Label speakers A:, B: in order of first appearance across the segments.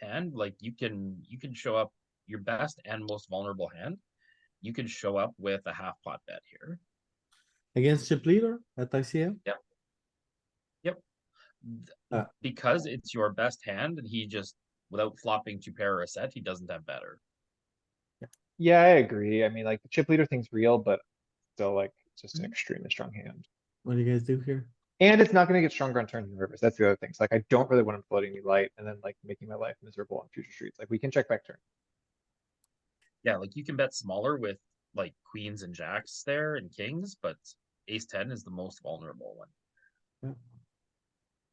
A: hand, like you can you can show up your best and most vulnerable hand. You can show up with a half pot bet here.
B: Against chip leader at ICM?
A: Th-
B: Uh.
A: Because it's your best hand and he just without flopping two pair or a set, he doesn't have better.
C: Yeah, I agree. I mean, like the chip leader thing's real, but still like it's
D: Mm-hmm.
C: just an
A: Mhm.
C: extremely strong hand.
B: What do you guys do here?
C: And it's not gonna get stronger on turns and rivers. That's the other thing. It's like I don't really want him floating me light and then like making my life miserable on future streets. Like we can check back turn.
A: Yeah, like you can bet smaller with like queens and jacks there and kings, but ace ten is the most vulnerable one.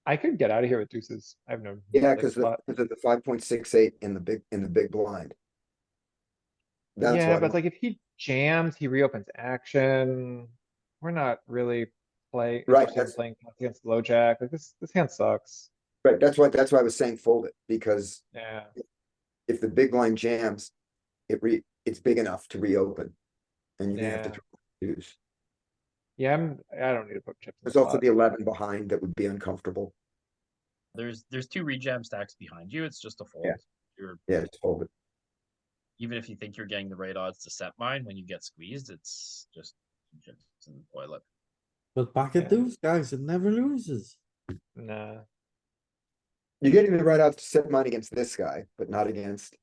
C: I could get out of here with deuces. I have no.
D: Yeah,
C: like,
D: because
C: lot-
D: of the five point six eight in the big, in the big blind. That's
C: Yeah,
D: why-
C: but like if he jams, he reopens action. We're not really play.
D: Right,
C: interested in
D: that's-
C: Playing pots against low jack. Like this, this hand sucks.
D: Right, that's why, that's why I was saying fold it, because
C: Yeah.
D: if the big blind jams, it re, it's big enough to reopen. And you're gonna have to
C: Yeah.
D: throw deuce.
C: Yeah, I'm, I don't need to put chips. in
D: There's
C: the
D: also
C: pot.
D: the eleven behind that would be uncomfortable.
A: There's there's two rejam stacks behind you. It's just a fold. You're
D: Yeah, just fold it.
A: even if you think you're getting the right odds to set mine when you get squeezed, it's just just in the toilet.
B: But pocket
C: Yeah.
B: deuce, guys, it never loses.
C: Nah,
D: You're getting the right odds to set mine against this guy, but not against.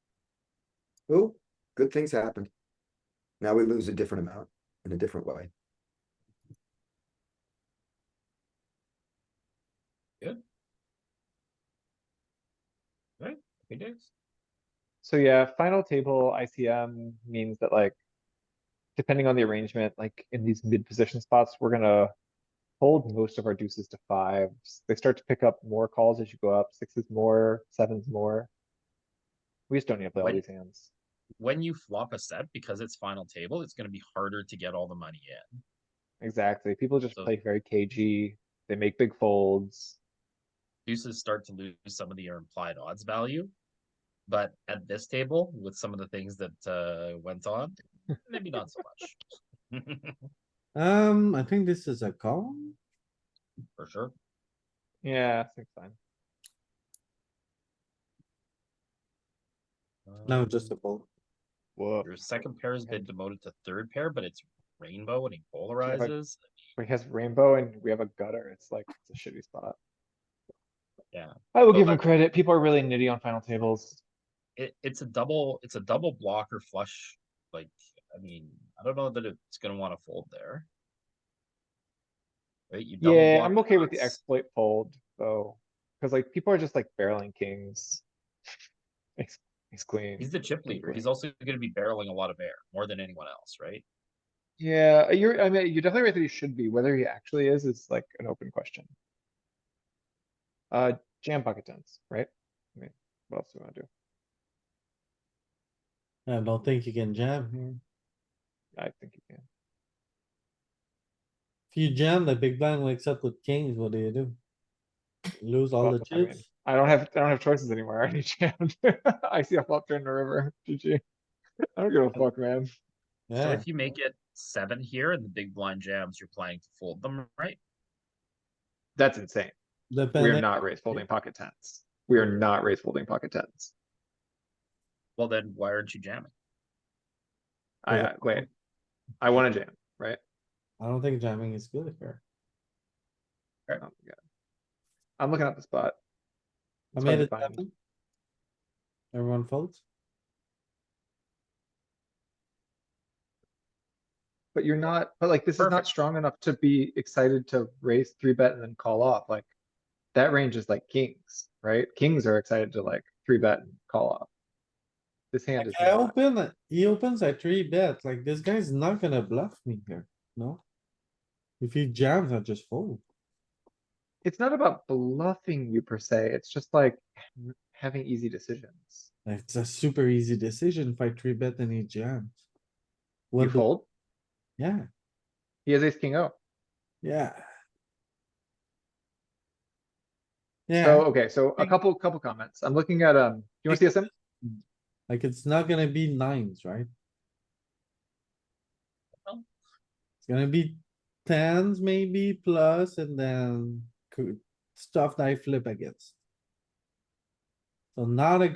D: Ooh, good things happened. Now we lose a different amount in a different way.
A: It is.
C: so yeah, final table ICM means that like. Depending on the arrangement, like in these mid position spots, we're gonna. Hold most of our deuces to fives. They start to pick up more calls as you go up, sixes more, sevens more. We just don't need to play all
A: When-
C: these hands.
A: When you flop a set because it's final table, it's going to be harder to get all the money in.
C: Exactly. People just
A: So-
C: play very cagey. They make big folds.
A: Deuces start to lose some of the implied odds value. But at this table, with some of the things that uh, went on, maybe not so much.
B: Um, I think this is a call.
A: For sure.
C: Yeah, I think fine.
B: No, just a
A: Um,
B: fold.
C: Whoa.
A: Your second pair has been demoted to third pair, but it's rainbow and he
C: I-
A: polarizes.
C: He has rainbow and we have a gutter. It's like, it's a shitty spot.
A: Yeah.
C: I will
A: So
C: give him
A: like-
C: credit. People are really nitty on final tables.
A: it, it's a double it's a double blocker flush like i mean i don't know that it's going to want to fold there right you double
C: Yeah,
A: block
C: I'm okay with the
A: nuts.
C: exploit fold though, because like people are just like barreling kings. Ace, ace
A: he's
C: queen.
A: the chip leader he's also going to be barreling a lot of air more than anyone else right
C: Yeah, you're, I mean, you're definitely right that he should be. Whether he actually is, is like an open question. Uh, jam pocket tens, right? I mean, what else do we want to do?
B: I don't think you can jam here.
C: I think you can.
B: If you jam, the big blind wakes up with kings, what do you do? Lose all
C: Well,
B: the
C: I mean,
B: chips?
C: I don't have, I don't have choices anymore. I already jammed. I see a flop turn in the river. GG. I don't give a fuck, man.
A: so
B: Yeah,
A: if you make it seven here and the big blind jams you're planning to fold them right
C: That's insane. We are
B: depending,
C: not raised folding pocket tens. We are not raised folding pocket tens.
A: well then why aren't you jamming
C: I,
B: Yeah.
C: I- wait. I wanna jam, right?
B: I don't think jamming is good here.
C: Oh my god. I'm looking up the spot.
B: I
C: It's hard
B: made
C: to
B: it
C: find.
B: happen. Everyone folds?
C: But you're not, but like, this is not
A: Perfect.
C: strong enough to be excited to raise three bet and then call off, like. That range is like kings, right? Kings are excited to like three bet and call off. This hand is
B: I
C: not.
B: open, it- he opens a three bet, like this guy's not gonna bluff me here, no? If he jams, I just fold.
C: it's not about bluffing you per se, it's just like n- having easy decisions.
B: It's a super easy decision if I three bet and he jams.
C: You
B: What, do-
C: fold,
B: yeah,
C: he has ace king oh. O.
B: yeah. Yeah,
C: So, okay, so a
B: think-
C: couple, couple comments. I'm looking at, um, you wanna see us in?
B: like it's not gonna be nines, right?
A: No.
B: It's gonna be tens maybe plus and then cou- stuff that I flip against. So not a